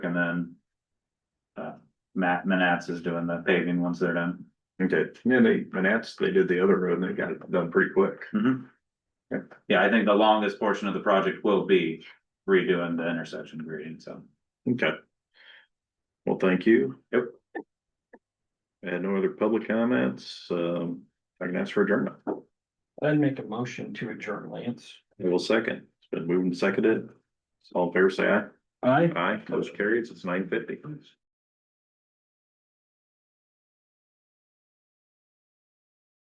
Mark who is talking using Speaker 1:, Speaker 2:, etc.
Speaker 1: and then. Uh, Matt Manats is doing the paving once they're done.
Speaker 2: Okay, yeah, they, Manats, they did the other road and they got it done pretty quick.
Speaker 1: Mhm.
Speaker 2: Okay.
Speaker 1: Yeah, I think the longest portion of the project will be redoing the intersection grading, so.
Speaker 2: Okay. Well, thank you.
Speaker 1: Yep.
Speaker 2: And no other public comments, um, I can ask for adjournment.
Speaker 3: I'd make a motion to adjourn, Lance.
Speaker 2: I will second. It's been moved and seconded. All fair say aye.
Speaker 3: Aye.
Speaker 2: Aye, motion carries. It's nine fifty.